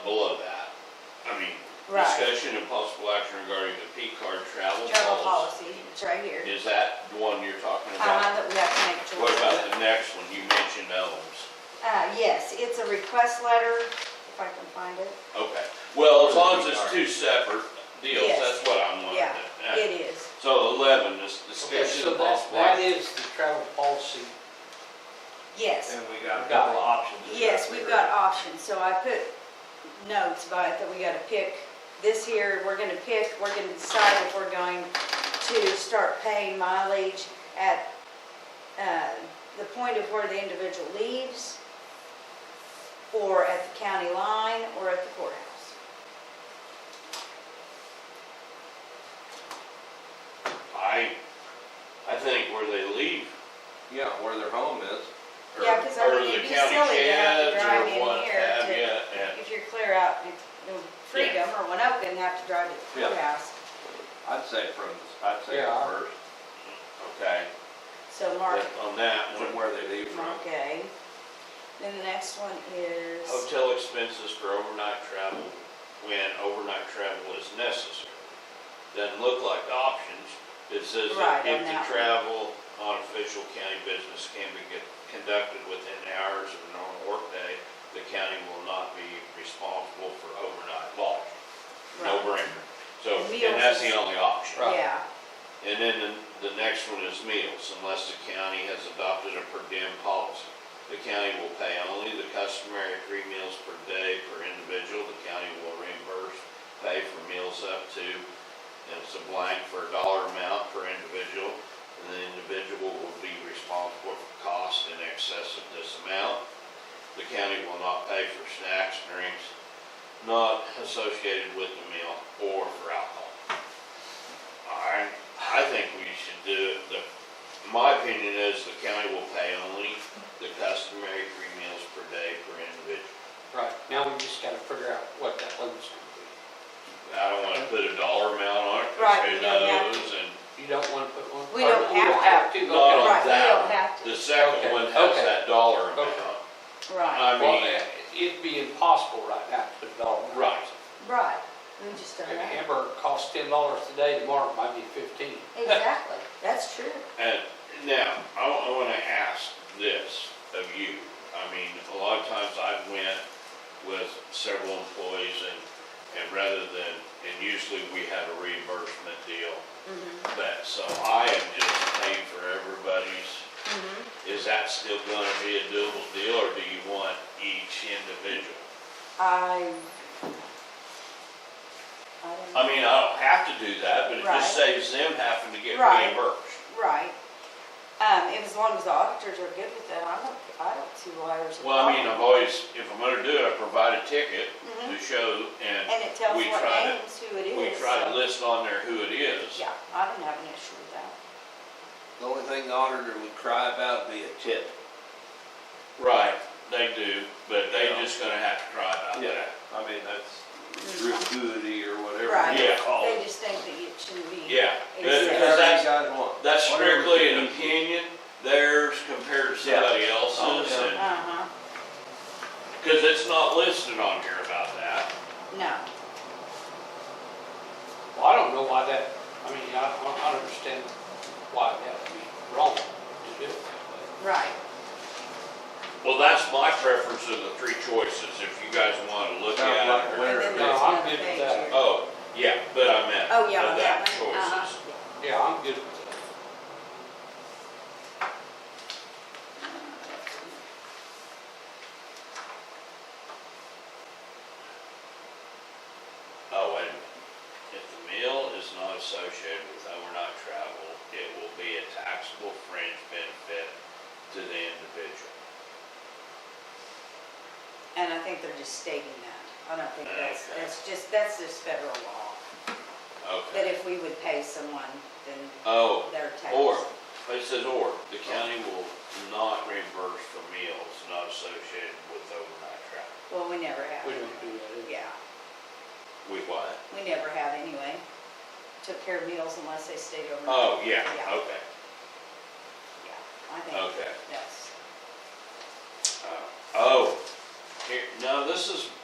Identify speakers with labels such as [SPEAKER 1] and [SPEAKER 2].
[SPEAKER 1] discussion and possible action regarding the P card travel
[SPEAKER 2] Travel
[SPEAKER 1] policy.
[SPEAKER 2] policy, it's right here.
[SPEAKER 1] Is that the one you're talking
[SPEAKER 2] Uh,
[SPEAKER 1] about?
[SPEAKER 2] that we have to make a choice.
[SPEAKER 1] What about the next one? You mentioned Elms.
[SPEAKER 2] Uh, yes, it's a request letter, if I can find it.
[SPEAKER 1] Okay, well, as long as it's two separate deals,
[SPEAKER 2] Yes.
[SPEAKER 1] that's what I'm wondering.
[SPEAKER 2] Yeah, It is.
[SPEAKER 1] So eleven, this
[SPEAKER 3] Okay,
[SPEAKER 1] discussion
[SPEAKER 3] so
[SPEAKER 1] of
[SPEAKER 3] that,
[SPEAKER 1] possible
[SPEAKER 3] that
[SPEAKER 1] action.
[SPEAKER 3] is the travel policy.
[SPEAKER 2] Yes,
[SPEAKER 4] And we got a couple of options.
[SPEAKER 2] yes, we've got options, so I put notes by it that we gotta pick this here, we're gonna pick, we're gonna decide if we're going to start paying mileage at, uh, the point of where the individual leaves, or at the county line, or at the courthouse.
[SPEAKER 1] I, I think where they leave,
[SPEAKER 4] Yeah, where their home is.
[SPEAKER 1] or,
[SPEAKER 2] Yeah, 'cause I
[SPEAKER 1] or
[SPEAKER 2] mean,
[SPEAKER 1] the
[SPEAKER 2] it'd be
[SPEAKER 1] county
[SPEAKER 2] silly to have to
[SPEAKER 1] sheds,
[SPEAKER 2] drive
[SPEAKER 1] or
[SPEAKER 2] in
[SPEAKER 1] what
[SPEAKER 2] here
[SPEAKER 1] have
[SPEAKER 2] to-
[SPEAKER 1] you, and,
[SPEAKER 2] If you're clear out, in you know, Freedom or Winoka and have to drive to the
[SPEAKER 4] Yeah.
[SPEAKER 2] courthouse,
[SPEAKER 4] I'd say from, I'd say
[SPEAKER 3] Yeah.
[SPEAKER 4] from first,
[SPEAKER 1] okay,
[SPEAKER 2] so Mark,
[SPEAKER 1] on that
[SPEAKER 4] from
[SPEAKER 1] one.
[SPEAKER 4] where they leave from.
[SPEAKER 2] okay. Then the next one is.
[SPEAKER 1] Hotel expenses for overnight travel when overnight travel is necessary. Doesn't look like the options. It says
[SPEAKER 2] Right,
[SPEAKER 1] that if
[SPEAKER 2] on
[SPEAKER 1] the
[SPEAKER 2] that one.
[SPEAKER 1] travel on official county business can be get- conducted within hours of a normal workday, the county will not be responsible for overnight lodging. No
[SPEAKER 2] Right.
[SPEAKER 1] brainer. So,
[SPEAKER 2] And meals
[SPEAKER 1] and that's the
[SPEAKER 2] is-
[SPEAKER 1] only option.
[SPEAKER 2] Yeah,
[SPEAKER 1] And then the, the next one is meals, unless the county has adopted a per diem policy. The county will pay only the customary three meals per day per individual. The county will reimburse, pay for meals up to, and it's a blank for a dollar amount per individual. And the individual will be responsible for costs in excess of this amount. The county will not pay for snacks, drinks not associated with the meal or for alcohol. I, I think we should do, the, my opinion is the county will pay only the customary three meals per day per individual.
[SPEAKER 3] Right, now we just gotta figure out what that limit's gonna
[SPEAKER 1] I don't wanna put a dollar amount on it,
[SPEAKER 2] Right,
[SPEAKER 1] cause who
[SPEAKER 2] we don't have
[SPEAKER 1] knows, and
[SPEAKER 3] be. You don't wanna put one.
[SPEAKER 2] We don't
[SPEAKER 3] or
[SPEAKER 2] have to.
[SPEAKER 3] We
[SPEAKER 1] No,
[SPEAKER 3] don't have
[SPEAKER 2] right,
[SPEAKER 1] Oh, that
[SPEAKER 2] we don't have
[SPEAKER 3] to,
[SPEAKER 1] the
[SPEAKER 2] to,
[SPEAKER 1] second
[SPEAKER 3] Okay,
[SPEAKER 1] one has
[SPEAKER 3] okay.
[SPEAKER 1] that dollar amount.
[SPEAKER 3] Okay.
[SPEAKER 2] right,
[SPEAKER 1] I
[SPEAKER 3] okay. Well,
[SPEAKER 1] mean,
[SPEAKER 3] it'd be impossible right now to put it all. in.
[SPEAKER 1] right,
[SPEAKER 2] right, we just don't
[SPEAKER 3] A
[SPEAKER 2] know.
[SPEAKER 3] hamburger costs ten dollars today, tomorrow it might be fifteen.
[SPEAKER 2] Exactly, that's true.
[SPEAKER 1] and now, I, wa- I wanna ask this of you. I mean, a lot of times I've went with several employees and, and rather than, and usually we have a reimbursement deal
[SPEAKER 2] Mhm,
[SPEAKER 1] that, so I am just paying for everybody's.
[SPEAKER 2] mhm.
[SPEAKER 1] Is that still gonna be a doable deal, or do you want each individual?
[SPEAKER 2] I. I don't
[SPEAKER 1] I
[SPEAKER 2] know,
[SPEAKER 1] mean, I don't have to do that, but it just
[SPEAKER 2] Right.
[SPEAKER 1] saves them having to get
[SPEAKER 2] Right.
[SPEAKER 1] reimbursed.
[SPEAKER 2] right. Um, and as long as the auditors are good with that, I don't, I don't see why there's a
[SPEAKER 1] Well, I mean,
[SPEAKER 2] problem.
[SPEAKER 1] I've always, if I'm gonna do it, I provide a ticket to
[SPEAKER 2] Mhm.
[SPEAKER 1] show, and
[SPEAKER 2] And it tells
[SPEAKER 1] we
[SPEAKER 2] what
[SPEAKER 1] try to-
[SPEAKER 2] names, who it is.
[SPEAKER 1] we try to
[SPEAKER 2] so-
[SPEAKER 1] list on there who it is.
[SPEAKER 2] Yeah, I don't have an issue with that.
[SPEAKER 4] The only thing the auditor would cry about would be a tip.
[SPEAKER 1] Right, they do, but they
[SPEAKER 4] Yeah.
[SPEAKER 1] just gonna have to try about that.
[SPEAKER 4] I mean, that's gratuity or
[SPEAKER 2] Mm-hmm.
[SPEAKER 4] whatever.
[SPEAKER 2] Right.
[SPEAKER 4] you
[SPEAKER 1] Yeah.
[SPEAKER 4] call
[SPEAKER 2] They
[SPEAKER 4] it.
[SPEAKER 2] just think that it shouldn't be.
[SPEAKER 1] Yeah,
[SPEAKER 2] It's-
[SPEAKER 1] because
[SPEAKER 4] Whatever
[SPEAKER 1] that's-
[SPEAKER 4] you guys want.
[SPEAKER 1] That's
[SPEAKER 4] Whatever
[SPEAKER 1] strictly
[SPEAKER 4] you
[SPEAKER 1] an
[SPEAKER 4] need.
[SPEAKER 1] opinion, theirs compared to
[SPEAKER 4] Yeah.
[SPEAKER 1] somebody else's,
[SPEAKER 4] Oh,
[SPEAKER 1] and,
[SPEAKER 2] Uh-huh,
[SPEAKER 1] cause it's not listed on here about that.
[SPEAKER 2] no,
[SPEAKER 3] Well, I don't know why that, I mean, I don't, I don't understand why that would be wrong to do it that way.
[SPEAKER 2] right,
[SPEAKER 1] Well, that's my preference of the three choices, if you guys wanna look
[SPEAKER 4] Sounds like
[SPEAKER 1] at
[SPEAKER 4] a
[SPEAKER 1] it.
[SPEAKER 4] winner.
[SPEAKER 2] And then
[SPEAKER 3] No,
[SPEAKER 2] there's
[SPEAKER 3] I'm
[SPEAKER 2] another
[SPEAKER 3] good
[SPEAKER 2] page
[SPEAKER 3] with that.
[SPEAKER 2] here.
[SPEAKER 1] Oh, yeah, but I meant.
[SPEAKER 2] Oh, yeah,
[SPEAKER 1] of
[SPEAKER 2] on
[SPEAKER 1] that
[SPEAKER 2] that one, uh-huh.
[SPEAKER 1] Choices.
[SPEAKER 3] Yeah, I'm good with that.
[SPEAKER 1] Oh, wait a minute. If the meal is not associated with overnight travel, it will be a taxable fringe benefit to the individual.
[SPEAKER 2] And I think they're just stating that. I don't think that's,
[SPEAKER 1] Okay.
[SPEAKER 2] that's just, that's just federal law, that
[SPEAKER 1] Okay.
[SPEAKER 2] if we would pay someone, then
[SPEAKER 1] Oh,
[SPEAKER 2] they're taxed.
[SPEAKER 1] or, it says or, the county will not reimburse for meals not associated with overnight travel.
[SPEAKER 2] Well, we never have.
[SPEAKER 3] We don't do that.
[SPEAKER 2] Yeah,
[SPEAKER 1] We what?
[SPEAKER 2] we never have anyway. Took care of meals unless they stayed overnight.
[SPEAKER 1] Oh, yeah,
[SPEAKER 2] Yeah.
[SPEAKER 1] okay.
[SPEAKER 2] Yeah, I think
[SPEAKER 1] Okay.
[SPEAKER 2] that's.
[SPEAKER 1] Uh, Oh, here, no, this is